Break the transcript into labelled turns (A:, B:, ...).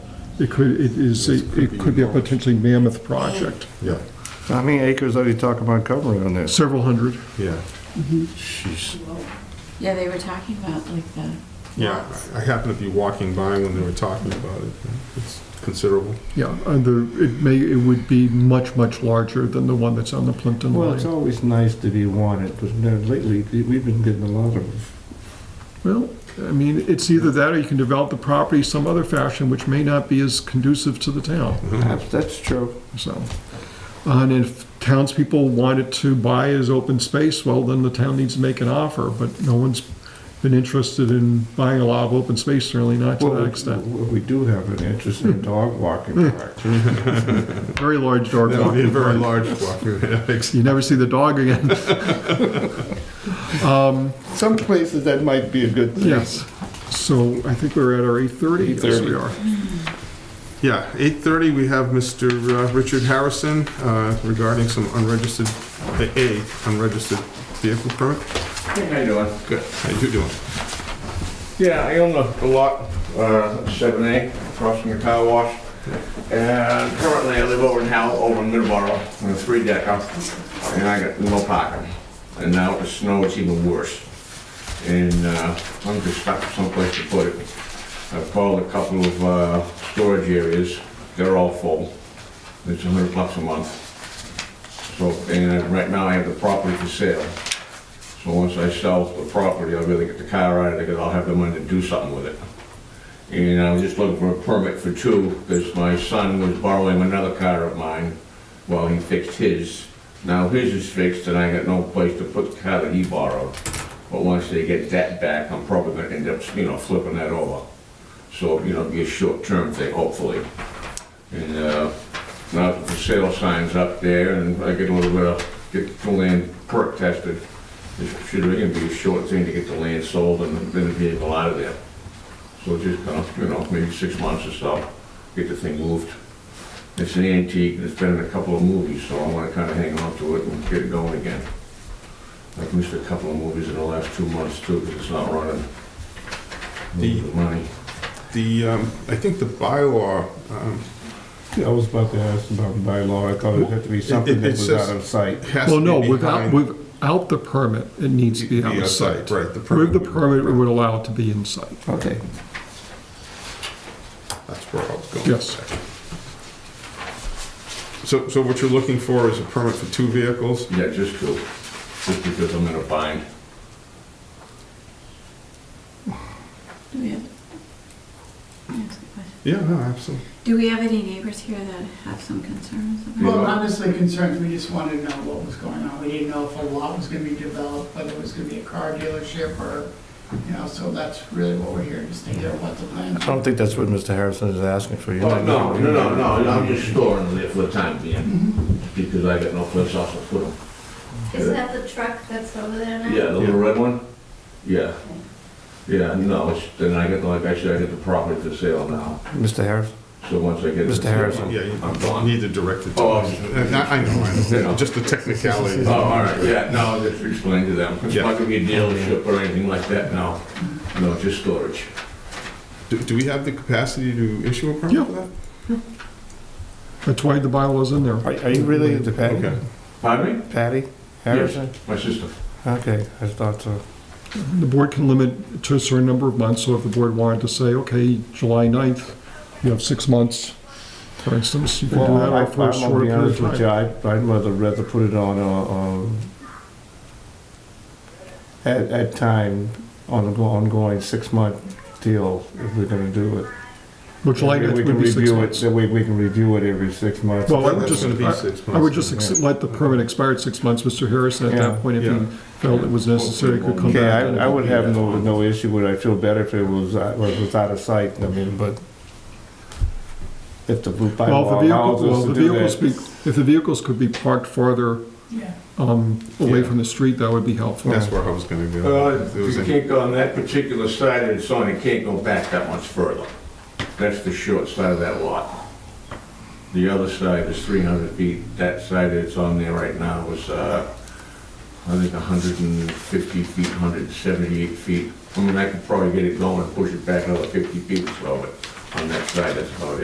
A: It could, it is, a- it could be a potentially mammoth project,
B: Yeah,
C: How many acres are you talking about covering on this?
A: several hundred.
B: yeah. She's,
D: Yeah, they were talking about like the
B: yeah, I happened to be walking by when they were talking about it. It's considerable.
A: Yeah, and the, it may, it would be much, much larger than the one that's on the Plimpton
C: Well, it's
A: line.
C: always nice to be wanted, but no, lately, we've been getting a lot of,
A: Well, I mean, it's either that or you can develop the property some other fashion, which may not be as conducive to the town,
C: that's, that's true.
A: so. And if townspeople wanted to buy as open space, well, then the town needs to make an offer, but no one's been interested in buying a lot of open space, certainly not to
C: Well,
A: that extent.
C: We do have an interesting dog walking park.
A: Very large dog.
B: That would be a
A: walking
B: very
A: park.
B: large walk.
A: You never see the dog again.
C: Some places that might be a good thing.
A: Yes. So I think we're at our 8:30. Yes, we are.
B: Yeah, 8:30, we have Mr. uh, Richard Harrison uh, regarding some unregistered, a- a unregistered vehicle permit.
E: How you doing?
B: Good. How you doing?
E: Yeah, I own a a lot, uh, seven A, across from the car wash. And currently I live over in Howell, over in Middleborough, in a three decker, and I got no parking. And now with the snow, it's even worse. And, uh, I'm just stuck someplace to put it. I've called a couple of, uh, storage areas, they're all full. It's a hundred bucks a month. So, and right now I have the property for sale. So once I sell the property, I'll be able to get the car out of it, because I'll have the money to do something with it. And I'm just looking for a permit for two, because my son was borrowing another car of mine while he fixed his. Now his is fixed, and I got no place to put the car that he borrowed. But once they get that back, I'm probably gonna end up, you know, flipping that over. So, you know, it'll be a short-term thing, hopefully. And, uh, now that the sale sign's up there, and I get a little bit of, get the land perk tested. It should really be a short thing to get the land sold and then the vehicle out of there. So just kind of, you know, maybe six months or so, get the thing moved. It's an antique, and it's been in a couple of movies, so I want to kind of hang on to it and get it going again. I've missed a couple of movies in the last two months too, because it's not running.
B: The-
E: money.
B: The, um, I think the bylaw, um,
C: I was about to ask about the bylaw, I thought it had to be
B: It-
C: something
B: it
C: that was
B: says-
C: out of sight.
B: has
A: Well,
B: to
A: no,
B: be
A: without,
B: behind.
A: without the permit, it needs to be
B: Be
A: out of
B: outside,
A: sight.
B: right, the permit
A: With the
B: would-
A: permit, it would allow it to be in sight.
C: Okay.
B: That's where I was going.
A: Yes.
B: So, so what you're looking for is a permit for two vehicles?
E: Yeah, just to, just because I'm in a bind.
D: do we have? That's a good question.
B: Yeah, no, absolutely.
D: Do we have any neighbors here that have some concerns about?
F: Well, not necessarily concerns, we just wanted to know what was going on. We didn't know if a lot was gonna be developed, whether it was gonna be a car dealership or, you know, so that's really what we're here, just to hear what the plans
C: I
F: are.
C: don't think that's what Mr. Harrison is asking for. You're
E: Oh,
C: not-
E: no, no, no, no, I'm just storing it for the time
F: Mm-hmm.
E: being, because I got no place else to put them.
G: Isn't that the truck that's over there now?
E: Yeah, the little red one? Yeah. Yeah, no, it's, then I get, like I said, I get the property for sale now,
C: Mr. Harrison?
E: so once I get. it-
C: Mr. Harrison.
B: Yeah, you
E: I'm
B: you
E: gone.
B: need to direct it to
E: Oh,
B: us. Uh, I I know, I know,
E: Yeah.
B: just the technicality.
E: Oh, all right, yeah, no, just explain to them, it's not gonna be a dealership or anything like that, no, no, just storage.
B: Do, do we have the capacity to issue a
A: Yeah.
B: permit for that?
A: That's why the bylaw's in there.
C: Are are you really into
B: Okay.
C: Patty?
E: Pardon me?
C: Patty Harrison?
E: My sister.
C: Okay, I thought so.
A: The board can limit to a certain number of months, so if the board wanted to say, okay, July 9th, you have six months, for instance, you can do that
C: Well, I-
A: or for a
C: I'm gonna
A: shorter
C: be
A: period
C: honest
A: of
C: with you,
A: time.
C: I'd, I'd rather, rather put it on, uh, um, at, at time, on an ongoing six-month deal, if we're gonna do it.
A: But July
C: That way
A: 9th
C: we
A: would
C: can
A: be six
C: review it-
A: months.
C: That way we can review it every six months.
A: Well, I would
B: That's
A: just,
B: gonna be six
A: I- I would
B: months.
A: just ex- let the permit expire at six months. Mr. Harrison, at
C: Yeah.
A: that point, if
B: Yeah.
A: he felt it was necessary, could come
C: Okay,
A: back.
C: I, I would have no, no issue with it, I feel better if it was, uh, was was out of sight, I mean, but if the bylaw
A: Well, if the
C: allows
A: vehicle,
C: us
A: well,
C: to
A: the
C: do
A: vehicles,
C: that.
A: be- if the vehicles could be parked farther
F: Yeah.
A: um, away
B: Yeah.
A: from the street, that would be helpful.
B: That's where I was gonna go.
E: Uh,
B: It was
E: you
B: in-
E: can't go on that particular side of the sign, it can't go back that much further. That's the short side of that lot. The other side is 300 feet, that side that's on there right now is, uh, I think 150 feet, 178 feet. I mean, I could probably get it going, push it back another 50 feet or so, but on that side, that's about it.